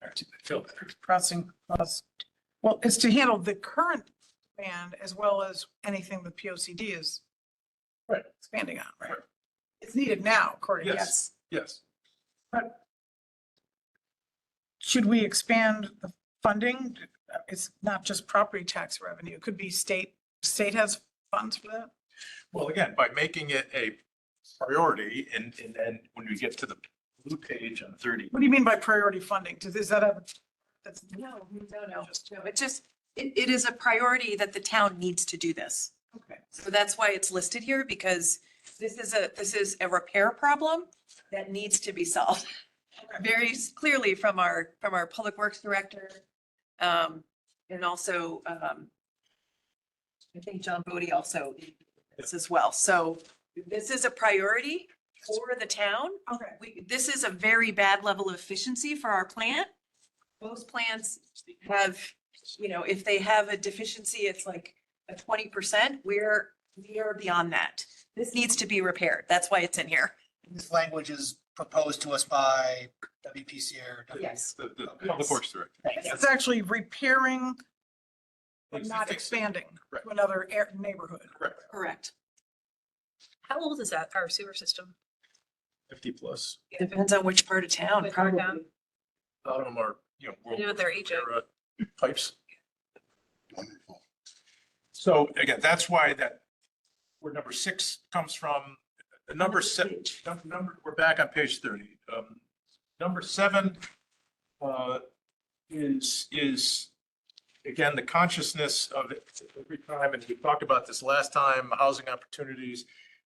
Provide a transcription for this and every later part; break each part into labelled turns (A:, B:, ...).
A: better,
B: feel better.
A: crossing, cross. Well, it's to handle the current band as well as anything the P O C D is
B: Right.
A: expanding on, right?
B: Right.
A: It's needed now, according,
B: Yes.
A: yes.
B: Yes.
A: Should we expand the funding? It's not just property tax revenue. It could be state, state has funds for that.
B: Well, again, by making it a priority and, and then when we get to the blue page on thirty,
A: What do you mean by priority funding? Does, is that a, that's,
C: No, no, no, no, it just, it, it is a priority that the town needs to do this.
A: okay.
C: So that's why it's listed here, because this is a, this is a repair problem that needs to be solved. Very s- clearly from our, from our Public Works Director, um, and also, um, I think John Bodie also in this as well. So this is a priority for the town
A: Okay.
C: we, this is a very bad level of efficiency for our plant. Most plants have, you know, if they have a deficiency, it's like a twenty percent. We're, we are beyond that. This needs to be repaired. That's why it's in here.
D: This language is proposed to us by WPC or. W-
C: Yes.
B: the, the public works director.
A: It's actually repairing, but not
B: Existing-
A: expanding
B: Right.
A: to another air- neighborhood.
B: Correct,
C: Correct.
E: How old is that, our sewer system?
B: fifty plus.
C: Depends on which part of town.
E: Which part of town?
B: A lot of them are, you know. World
E: I know
B: War
E: they're
B: II
E: aging.
B: era Pipes. Wonderful. So again, that's why that, where number six comes from, the number seven, num- number, we're back on page thirty. Um, Number seven, uh, is, is, again, the consciousness of it every time, and we talked about this last time, housing opportunities.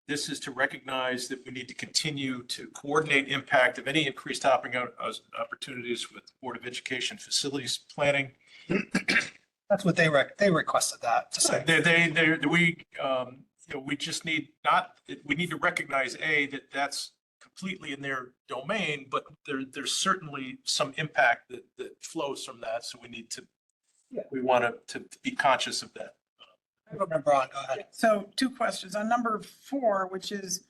B: This is to recognize that we need to continue to coordinate impact of any increased hopping out, uh, opportunities with Board of Education facilities planning.
D: That's what they rec, they requested that to say.
B: They, they, they, we, um, you know, we just need not, we need to recognize, A, that that's completely in their domain, but there, there's certainly some impact that, that flows from that, so we need to, we want to, to be conscious of that.
D: Remember on, go ahead.
A: So two questions. On number four, which is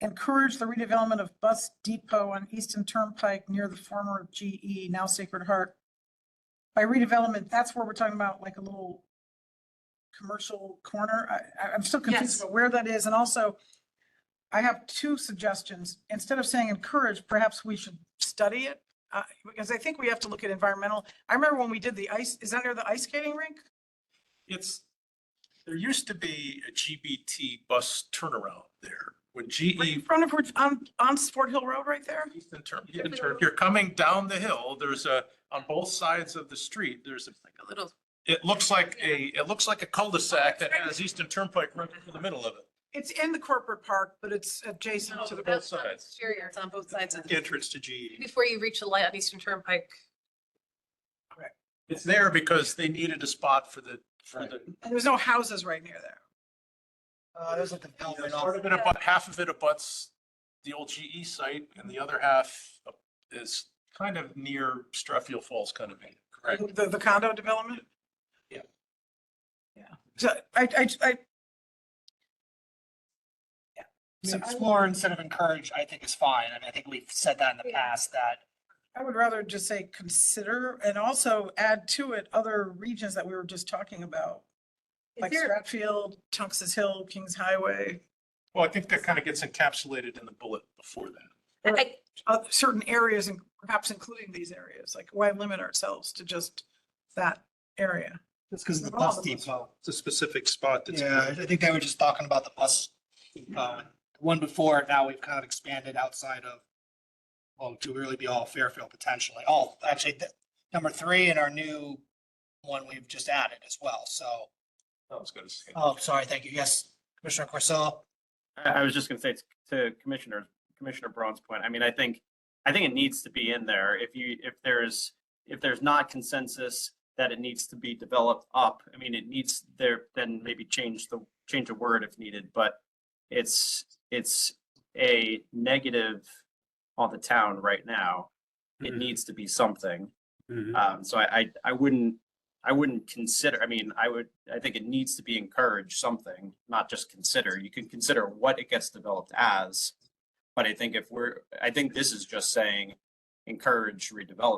A: encourage the redevelopment of bus depot on Easton Turnpike near the former GE, now Sacred Heart. By redevelopment, that's where we're talking about like a little commercial corner. I, I- I'm still confused
C: Yes.
A: about where that is. And also I have two suggestions. Instead of saying encourage, perhaps we should study it. Uh, because I think we have to look at environmental. I remember when we did the ice, is that near the ice skating rink?
B: It's, there used to be a GBT bus turnaround there, when E GE
A: In front of, which- on, on Fort Hill Road right there?
B: Eastern Turn, Eastern Turn, you're coming down the hill, there's a, on both sides of the street, there's a,
C: A little.
B: it looks like a, it looks like a cul-de-sac that has Eastern Turnpike right through the middle of it.
A: It's in the corporate park, but it's adjacent to the,
B: Both sides.
E: Exterior.
C: It's on both sides of the.
B: Entrance to E. GE.
E: Before you reach the light on Eastern Turnpike,
B: It's there because they needed a spot for the, for the,
A: and there's no houses right near there.
D: Uh, there's a development
B: part
D: off,
B: of it, about, half of it abuts the old GE site and the other half is kind of near Strathfield Falls kind of thing. Correct.
A: The, the condo development?
B: Yeah.
A: Yeah. So I, I, I,
D: so explore instead of encourage, I think is fine. I mean, I think we've said that in the past, that
A: I would rather just say consider and also add to it other regions that we were just talking about. Like Stratfield, Tunx's Hill, Kings Highway,
B: Well, I think that kind of gets encapsulated in the bullet before that.
E: I- I-
A: uh, certain areas and perhaps including these areas. Like why limit ourselves to just that area?
D: it's because of the
A: We're all
D: bus
A: on the bus.
D: depot.
B: It's a specific spot that's.
D: Yeah, I think they were just talking about the bus depot. The One before, now we've kind of expanded outside of, well, to really be all Fairfield potentially. All, actually, th- number three in our new one we've just added as well, so.
B: I was gonna say.
D: Oh, sorry, thank you. Yes, Commissioner Corcel.
F: I, I was just gonna say, it's to Commissioner, Commissioner Braun's point, I mean, I think, I think it needs to be in there. If you, if there's, if there's not consensus that it needs to be developed up, I mean, it needs there, then maybe change the, change a word if needed, but it's, it's a negative on the town right now. It
G: Mhm.
F: needs to be something.
G: Mhm.
F: Um, so I, I, I wouldn't, I wouldn't consider, I mean, I would, I think it needs to be encouraged something, not just consider. You can consider what it gets developed as. But I think if we're, I think this is just saying encourage redevelopment.